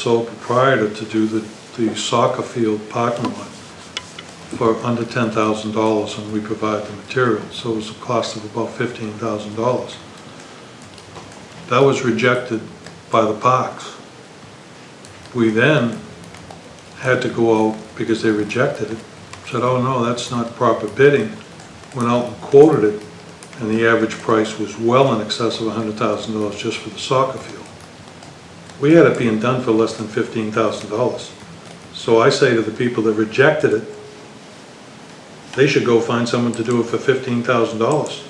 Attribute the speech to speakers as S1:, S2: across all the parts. S1: sole proprietor to do the, the soccer field parking lot for under ten thousand dollars and we provide the material, so it was a cost of about fifteen thousand dollars. That was rejected by the parks. We then had to go out, because they rejected it, said, oh no, that's not proper bidding, went out and quoted it, and the average price was well in excess of hundred thousand dollars just for the soccer field. We had it being done for less than fifteen thousand dollars. So I say to the people that rejected it, they should go find someone to do it for fifteen thousand dollars.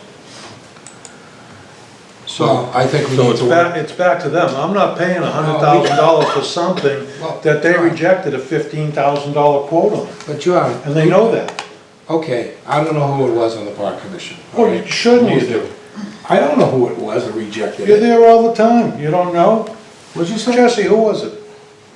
S2: Well,
S1: So,
S2: I think we
S1: so
S2: need
S1: it's
S2: to,
S1: back,
S2: work-
S1: it's back to them. I'm not paying hundred thousand dollars for something
S2: Well,
S1: that they
S2: no.
S1: rejected a fifteen thousand dollar quote on,
S2: but John,
S1: and they know that.
S2: okay, I don't know who it was on the park commission.
S1: Well, you shouldn't you do?
S2: I don't know who it was that rejected
S1: You're
S2: it.
S1: there all the time. You don't know?
S2: What'd you say?
S1: Jesse, who was it?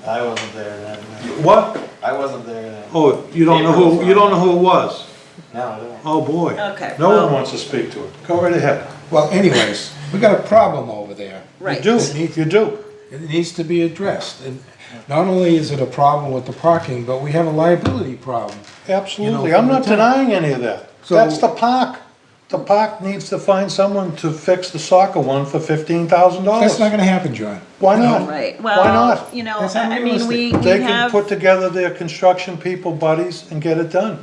S3: I wasn't there then. no.
S1: What?
S3: I wasn't there then.
S1: Oh, you don't know who, you don't know who it was?
S3: No, I don't.
S1: Oh, boy.
S4: Okay,
S1: No one
S4: well-
S1: wants to speak to it. Go right ahead.
S2: Well, anyways, we got a problem over there.
S1: You
S4: Right.
S1: do, you do.
S2: It needs to be addressed. And not only is it a problem with the parking, but we have a liability problem.
S1: Absolutely. I'm not denying any of that.
S2: So-
S1: That's the park. The park needs to find someone to fix the soccer one for fifteen thousand
S2: That's
S1: dollars.
S2: not gonna happen, John.
S1: Why not?
S4: Right,
S1: Why
S4: well,
S1: not?
S4: you know,
S2: That's
S4: I I mean, we, we
S1: They can
S4: have,
S1: put together their construction people buddies and get it done.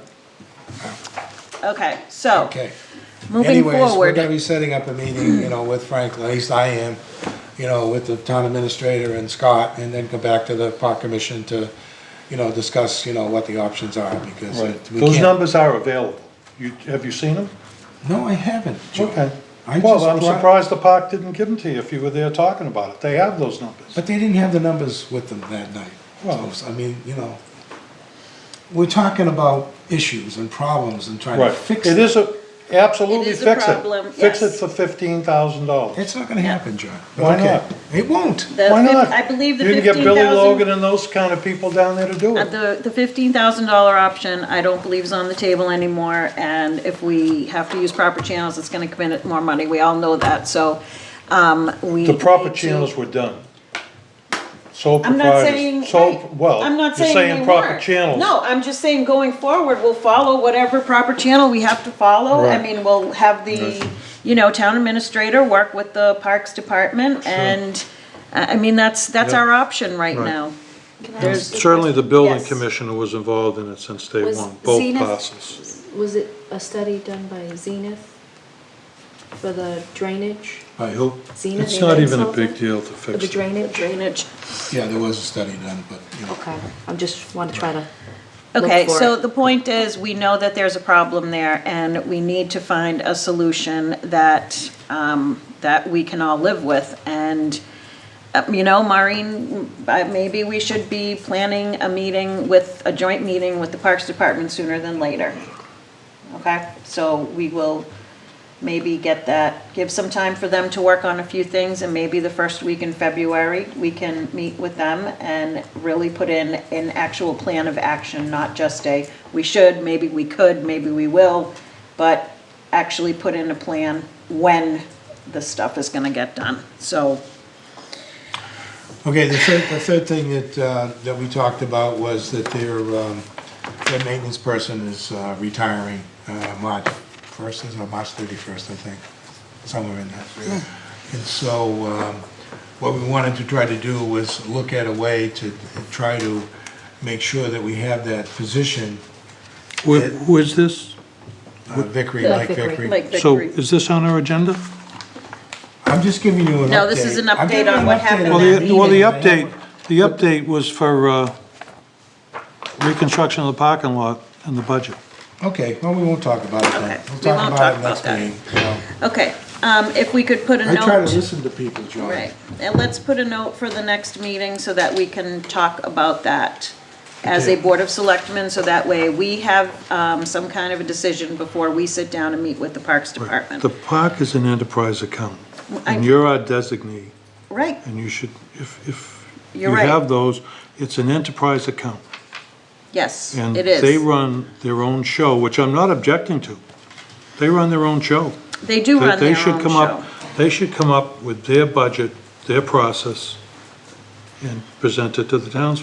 S4: okay, so,
S2: Okay.
S4: moving
S2: Anyways, we're gonna
S4: forward,
S2: be setting up a meeting, you know, with Frank, at least I am, you know, with the town administrator and Scott, and then go back to the park commission to, you know, discuss, you know, what the options are, because it- we
S1: Those
S2: can't-
S1: numbers are available. You, have you seen them?
S2: No, I haven't, Joe.
S1: Okay.
S2: I
S1: Well,
S2: just
S1: I'm
S2: brought-
S1: surprised the park didn't give them to you if you were there talking about it. They have those numbers.
S2: But they didn't have the numbers with them that night.
S1: Well-
S2: So, I mean, you know, we're talking about issues and problems and trying to
S1: Right.
S2: fix
S1: It
S2: it.
S1: is a, absolutely
S4: It is a
S1: fix it.
S4: problem,
S1: Fix it
S4: yes.
S1: for fifteen thousand dollars.
S2: It's not gonna happen, John. but
S1: Why
S2: okay.
S1: not?
S2: It won't.
S4: the,
S1: Why
S4: fif-
S1: not?
S4: I believe the
S1: You can get
S4: fifteen
S1: Billy Logan
S4: thousand, uh,
S1: and those kind of people down there to do it.
S4: the, the fifteen thousand dollar option, I don't believe is on the table anymore, and if we have to use proper channels, it's gonna come in at more money, we all know that, so, um, we.
S1: The proper
S4: need to-
S1: channels were done. Sole
S4: I'm
S1: proprietors.
S4: not saying,
S1: sole-
S4: right,
S1: Well,
S4: I'm
S1: you're
S4: not saying
S1: saying
S4: they
S1: proper
S4: weren't.
S1: channels.
S4: No, I'm just saying going forward, we'll follow whatever proper channel we have to follow. I
S1: Right.
S4: mean, we'll have the, you know, town administrator work with the Parks Department and, I I mean, that's, that's
S1: Yeah.
S4: our option right
S1: Right.
S4: now.
S5: Can I
S4: There's-
S5: ask you a
S1: Certainly, the building
S4: Yes.
S1: commissioner was involved in it since day
S5: Was
S1: one, both
S5: Zenith-
S1: parcels.
S5: question? Was it a study done by Zenith for the drainage?
S2: By who?
S5: Zenith
S1: It's not even a
S5: Consulting?
S1: big deal to
S5: For the
S1: fix it.
S5: drainage?
S4: Drainage.
S2: Yeah, there was a study done, but, you know.
S5: Okay, I'm just, want to try to look
S4: Okay,
S5: for
S4: so
S5: it.
S4: the point is, we know that there's a problem there and we need to find a solution that, um, that we can all live with. And, uh, you know, Maureen, uh, maybe we should be planning a meeting with, a joint meeting with the Parks Department sooner than later. Okay, so we will maybe get that, give some time for them to work on a few things, and maybe the first week in February, we can meet with them and really put in an actual plan of action, not just a, we should, maybe we could, maybe we will, but actually put in a plan when the stuff is gonna get done, so.
S2: Okay, the third, the third thing that, uh, that we talked about was that their, um, their maintenance person is uh, retiring, uh, March first, is it March thirty-first, I think, somewhere in that. And so, um, what we wanted to try to do was look at a way to try to make sure that we have that position,
S1: Who who is this?
S2: uh, Vickery,
S5: Yeah,
S2: like
S5: Vickery.
S2: Vickery.
S4: Like
S1: So
S4: victory.
S1: is this on our agenda?
S2: I'm just giving you an update.
S4: No, this is an
S2: I'm
S4: update
S2: giving
S4: on
S2: an
S4: what
S2: update
S4: happened
S2: on
S1: Well,
S4: Well, that
S1: the,
S2: meeting
S1: well, the
S2: that happened.
S1: update, the update was for uh, reconstruction of the parking lot and the budget.
S2: Okay, well, we won't talk about it
S4: Okay,
S2: then. We'll
S4: we
S2: talk
S4: won't
S2: about
S4: talk
S2: it
S4: about
S2: next
S4: that.
S2: meeting. you know.
S4: Okay, um, if we could put a
S2: I
S4: note.
S2: try to listen to people, John.
S4: Right, and let's put a note for the next meeting so that we can talk about that as a
S2: Okay.
S4: Board of Selectmen, so that way we have um, some kind of a decision before we sit down and meet with the Parks Department.
S1: The park is an enterprise account, and
S4: I-
S1: you're our designee,
S4: Right,
S1: and you should, if, if you
S4: You're right.
S1: have those, it's an enterprise account.
S4: yes,
S1: And
S4: it
S1: they
S4: is.
S1: run their own show, which I'm not objecting to. They run their own show.
S4: They do
S1: They-
S4: run
S1: they
S4: their
S1: should
S4: own
S1: come up.
S4: show.
S1: They should come up with their budget, their process, and present it to the townspeople.